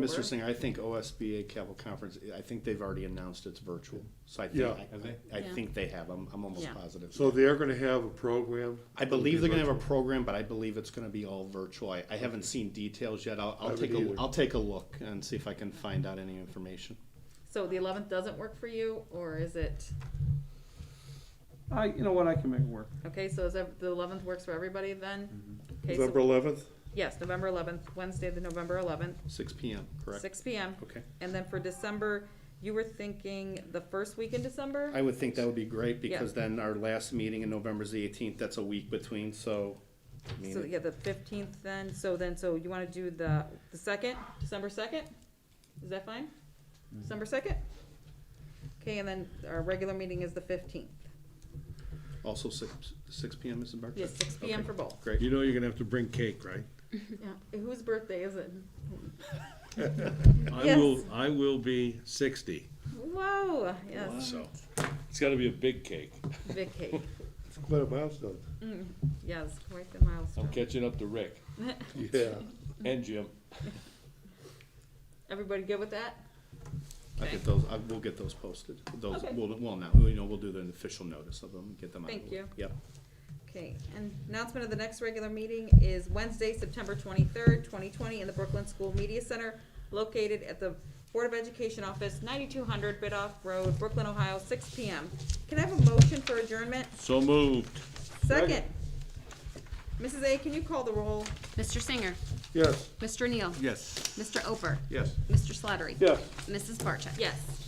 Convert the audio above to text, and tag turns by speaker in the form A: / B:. A: Mr.
B: Where-
A: Singer, I think OSBA Capitol Conference, I think they've already announced it's virtual, so I
B: Yeah.
A: think,
C: Have they?
A: I, I
D: Yeah.
A: think they have, I'm, I'm almost
D: Yeah.
A: positive.
B: So they're gonna have a program?
A: I believe they're gonna have a
B: Virtual.
A: program, but I believe it's gonna be all virtual, I, I haven't seen details yet, I'll,
B: I
A: I'll
B: haven't
A: take a,
B: either.
A: I'll take a look and see if I can find out any information.
B: So the eleventh doesn't work for you, or is it,
E: I, you know what, I can make it work.
B: okay, so is that, the eleventh works for everybody then? Okay,
F: November
B: so,
F: eleventh?
B: yes, November eleventh, Wednesday, the November eleventh,
A: Six P M, correct?
B: six P M.
A: Okay.
B: And then for December, you were thinking the first week in December?
A: I would think that would be great, because then our last meeting in November's the eighteenth, that's a week between, so. I mean,
B: So, yeah, the fifteenth then, so then, so you wanna do the, the second, December second? Is that fine?
A: Mm-hmm.
B: December second? Okay, and then our regular meeting is the fifteenth.
A: Also six, six P M, Mrs. Barcus?
B: Yes, six P M
A: Okay.
B: for both.
A: Great.
F: You know you're gonna have to bring cake, right?
B: Yeah, whose birthday is it?
F: I
B: Yes.
F: will, I will be sixty,
B: Whoa, yes,
F: so it's gotta be a big cake.
B: big cake.
C: It's quite a milestone.
B: Yes, quite the milestone.
F: I'm catching up to Rick
C: Yeah.
F: and Jim.
B: Everybody good with that?
A: I'll get those, I, we'll get those posted, those,
B: Okay.
A: we'll, well, now, you know, we'll do an official notice of them, get them out. of the
B: Thank
A: way.
B: you.
A: Yep.
B: Okay, and announcement of the next regular meeting is Wednesday, September twenty-third, twenty twenty, in the Brooklyn School Media Center, located at the Board of Education Office, ninety-two hundred Bidoff Road, Brooklyn, Ohio, six P M. Can I have a motion for adjournment?
F: So moved.
B: Second. Mrs. A, can you call the roll?
D: Mr. Singer,
C: Yes.
D: Mr. Neal,
F: Yes.
D: Mr. Oper,
F: Yes.
D: Mr. Slattery,
C: Yes.
D: Mrs. Barcheck.
B: Yes.